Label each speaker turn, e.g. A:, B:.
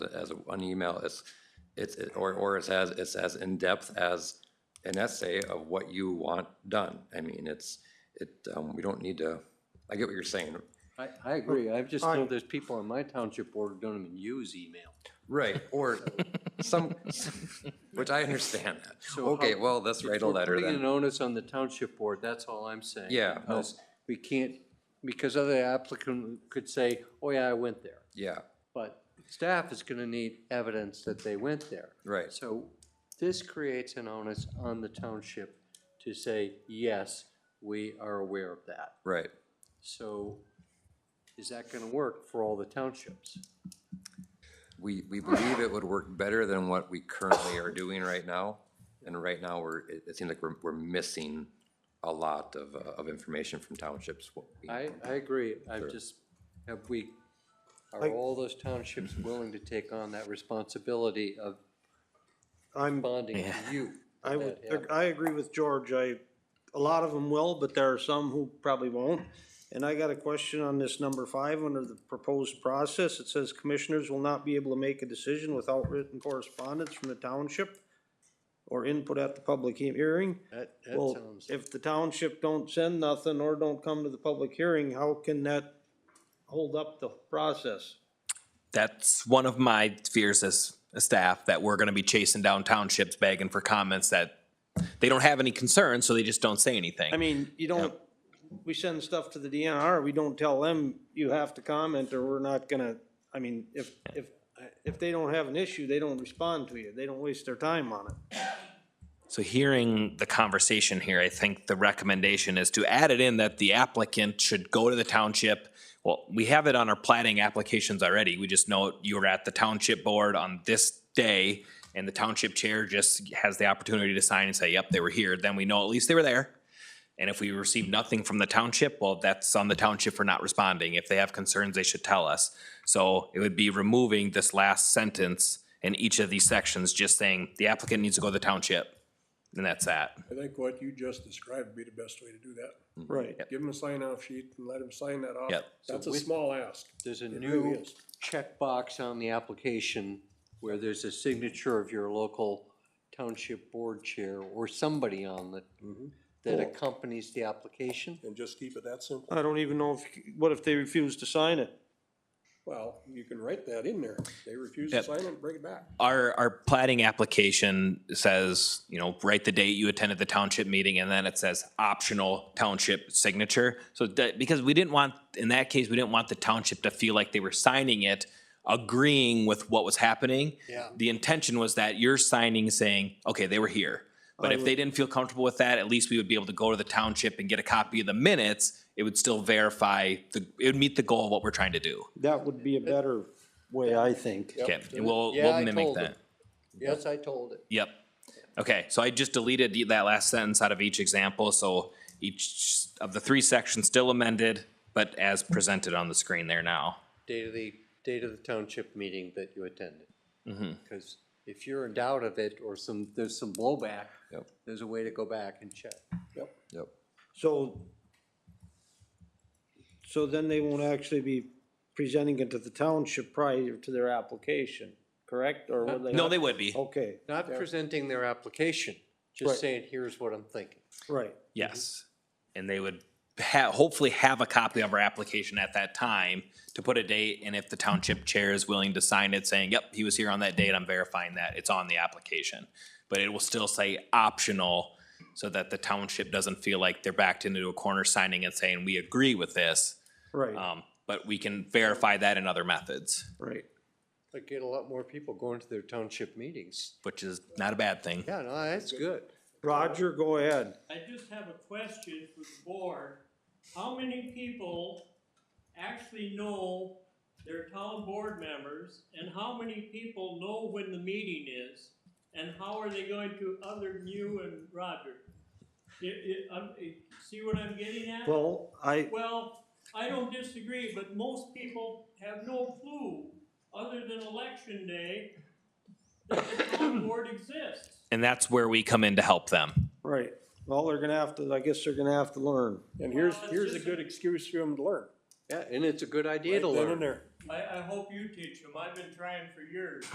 A: as an email, it's, it's, it- or, or it's as, it's as in-depth as an essay of what you want done. I mean, it's, it, um, we don't need to, I get what you're saying.
B: I, I agree. I just know
C: Alright.
B: there's people on my township board who don't even use email.
A: Right, or some, which I understand that.
B: So
A: Okay,
B: how-
A: well, let's write a
B: We're
A: letter
B: Putting an
A: then.
B: onus on the township board, that's all I'm saying.
A: Yeah, oh. no.
B: Because we can't, because other applicant could say, oh yeah, I went there.
A: Yeah,
B: But staff is gonna need evidence that they went there.
A: right,
B: So this creates an onus on the township to say, yes, we are aware of that.
A: right.
B: So is that gonna work for all the townships?
A: We, we believe it would work better than what we currently are doing right now. And right now, we're, it, it seems like we're, we're missing a lot of, uh, of information from townships. what we-
B: I, I agree. i just, have we, are
C: Like-
B: all those townships willing to take on that responsibility of
C: I'm,
B: bonding to you?
C: I would,
B: Yeah.
C: I agree with George. I, a lot of them will, but there are some who probably won't. And I got a question on this number five, under the proposed process. It says commissioners will not be able to make a decision without written correspondence from the township or input at the public he- hearing.
B: That, that
C: Well,
B: sounds,
C: if the township don't send nothing or don't come to the public hearing, how can that hold up the process?
D: That's one of my fears as a staff, that we're gonna be chasing down townships begging for comments that they don't have any concerns, so they just don't say
C: I
D: anything.
C: mean, you don't, we send stuff to the DNR, we don't tell them you have to comment or we're not gonna, I mean, if, if, if they don't have an issue, they don't respond to you, they don't waste their time on it.
D: So hearing the conversation here, I think the recommendation is to add it in that the applicant should go to the township. Well, we have it on our plating applications already. We just know you were at the township board on this day and the township chair just has the opportunity to sign and say, yep, they were here. Then we know at least they were there. And if we receive nothing from the township, well, that's on the township for not responding. If they have concerns, they should tell us. So it would be removing this last sentence in each of these sections, just saying the applicant needs to go to the township. And that's that.
E: I think what you just described would be the best way to do that.
C: Right.
E: Give them a sign off sheet and let them sign that off.
D: Yep.
E: That's
B: So
E: a
B: with-
E: small ask.
B: there's a
E: It really
B: new
E: is.
B: checkbox on the application where there's a signature of your local township board chair or somebody on the,
E: Mm-hmm.
B: that accompanies the application.
E: And just keep it that simple.
C: I don't even know if, what if they refuse to sign it?
E: Well, you can write that in there. They refuse to
D: Yep.
E: sign it, bring it back.
D: Our, our plating application says, you know, write the date you attended the township meeting and then it says optional township signature. So that, because we didn't want, in that case, we didn't want the township to feel like they were signing it, agreeing with what was happening.
B: Yeah.
D: The intention was that you're signing saying, okay, they were here. But if they didn't feel comfortable with that, at least we would be able to go to the township and get a copy of the minutes. It would still verify, the it would meet the goal of what we're trying to do.
C: That would be a better way, I think.
D: Okay, and we'll,
B: Yeah, I
D: we'll mimic
B: told them.
D: that.
B: Yes, I told it.
D: Yep. Okay, so I just deleted the- that last sentence out of each example, so each of the three sections still amended, but as presented on the screen there now.
B: Date of the, date of the township meeting that you attended. Because if you're in doubt of it or some, there's some blowback,
A: Yep.
B: there's a way to go back and check.
E: Yep.
A: Yep.
C: So, so then they won't actually be presenting it to the township prior to their application, correct? Or would they?
D: Uh, No, they would be,
C: Okay,
B: Not presenting their application,
C: Right.
B: just saying, here's what I'm thinking.
C: right.
D: yes. And they would ha- hopefully have a copy of our application at that time to put a date, and if the township chair is willing to sign it saying, yep, he was here on that date, I'm verifying that, it's on the application. But it will still say optional, so that the township doesn't feel like they're backed into a corner signing and saying, we agree with this.
C: Right,
D: Um, but we can verify that in other methods,
C: right.
B: I get a lot more people going to their township meetings.
D: which is not a bad thing.
B: Yeah, no, that's good.
C: Roger, go ahead.
F: I just have a question for the board. How many people actually know their town board members? And how many people know when the meeting is? And how are they going to, other than you and Roger? It- it- um, it- see what I'm getting at?
C: Well, I,
F: Well, I don't disagree, but most people have no clue, other than election day, that the town board exists.
D: And that's where we come in to help them.
C: right, well, they're gonna have to, I guess they're gonna have to learn.
E: And here's,
F: Well, it's
E: here's a
F: just-
E: good excuse for them to learn.
B: Yeah, and it's a good idea to
E: Right then
B: learn.
E: and there.
F: I, I hope you teach them. I've been trying for years.